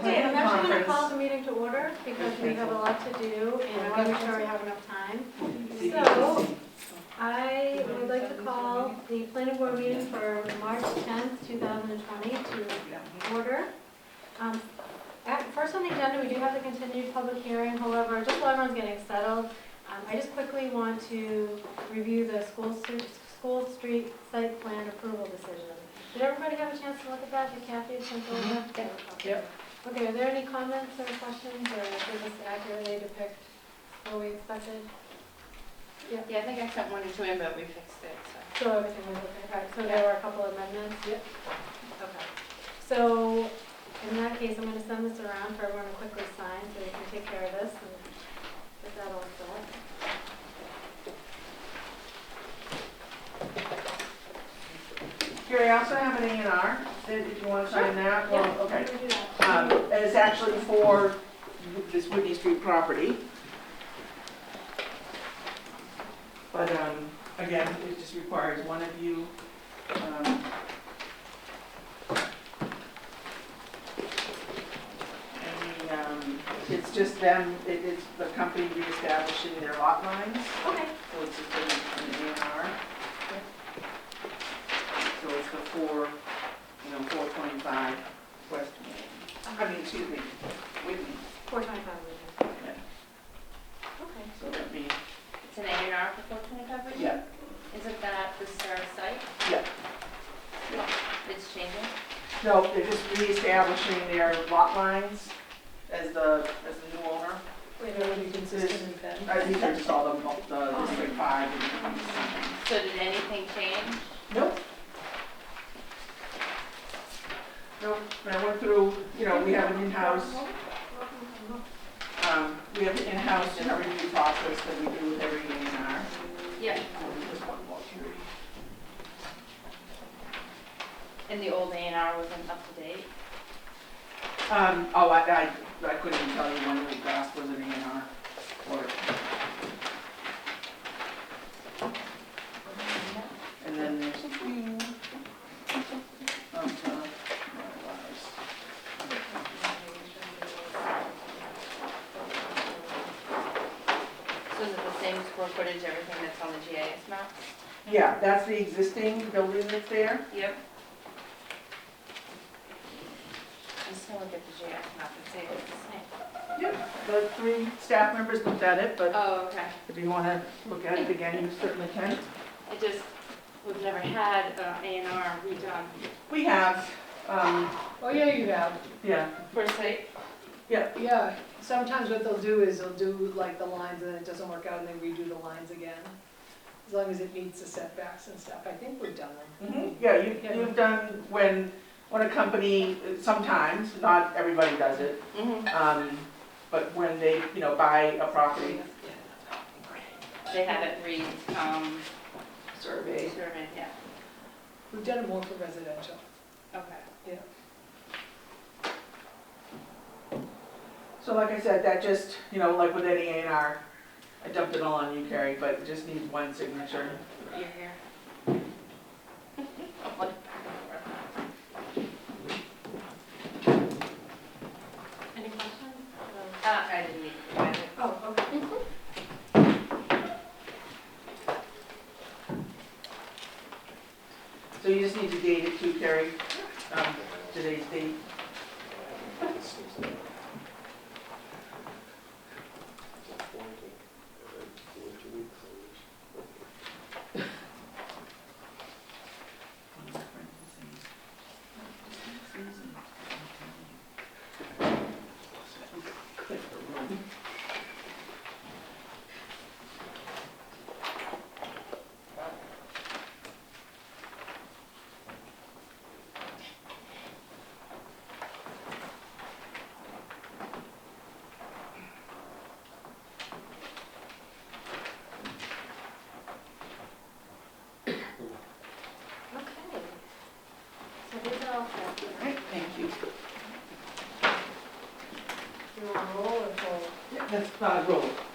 I'm gonna call conference. the meeting to order because we have a lot to do and I want to make sure we have enough time. So I would like to call the planning board meeting for March 10th, 2020 to order. Um, at- First on the agenda, we do have the continued public hearing, however, just while everyone's getting settled, um, I just quickly want to review the school, stu- school street site plan approval decision. Did everybody have a chance to look at that? Did Kathy send over? Yep. Okay, are there any comments or questions, or did this accurately depict what we expected? Yeah, I think I sent one or two in, but we fixed it, so. So everything was okay, All right, so there were a couple amendments? Yep. Okay, so in that case, I'm gonna send this around for everyone to quickly sign, so they can take care of this and get that all set. Here, I also have an A and R, if you want to sign that, well, Oh, okay. Can we do that? Um, and It's actually for this Whitney Street property. But um, again, it just requires one of you. um, and the, um, It's just them, it- it's the company reestablishing their lot lines, Okay, so it's just an an A and R. So it's the four, you know, 425 West Main. I mean, excuse me, Whitney, four twenty-five, we do. Okay. so let me, It's an A and R for four twenty-five, right? yeah, Isn't that the star site? Yeah. It's changing? no, they're just reestablishing their lot lines as the, as the new owner. Wait, That are would be consistent with that. I think they're just all the, mo- the District Five and So did anything change? Nope. Nope, and I went through, you know, we have an in-house, um, we have an in-house in our review process that we do with every A and R. Yeah. Just one more period. And the old A and R wasn't up to date? Um, oh, I, I, I couldn't even tell you when the last was an A and R or, and then there's a few. um, uh, my So is it the same square footage, everything that's on the GIS map? lies. Yeah, that's the existing building that's there. Yep. I'm just gonna look at the GIS map and see if it's the same. The three staff members looked at it, but Oh, okay. if you want to look at it again, you certainly can. It just, we've never had uh, A and R redone We have, um, Oh, yeah, you have, yeah, for a site. yeah. Sometimes what they'll do is they'll do like the lines and then it doesn't work out and they redo the lines again. As long as it meets the setbacks and stuff. I think we've done them. Mhm, Yeah, you, Yeah. you've done when, when a company, sometimes, not everybody does it, Mm-hmm. um, but when they, you know, buy a property. They have it re, um, Survey. surveyed, yeah, We've done it more for residential. okay. So like I said, that just, you know, like with any A and R, I dumped it all on you, Carrie, but it just needs one signature. You're here. Any questions? No. Uh, I didn't need to find it. Oh, okay. So you just need to date it too, Carrie, um, today's date. Okay. So these are all set. All right, thank you. Do you want to roll or fold? Yeah, That's not a roll,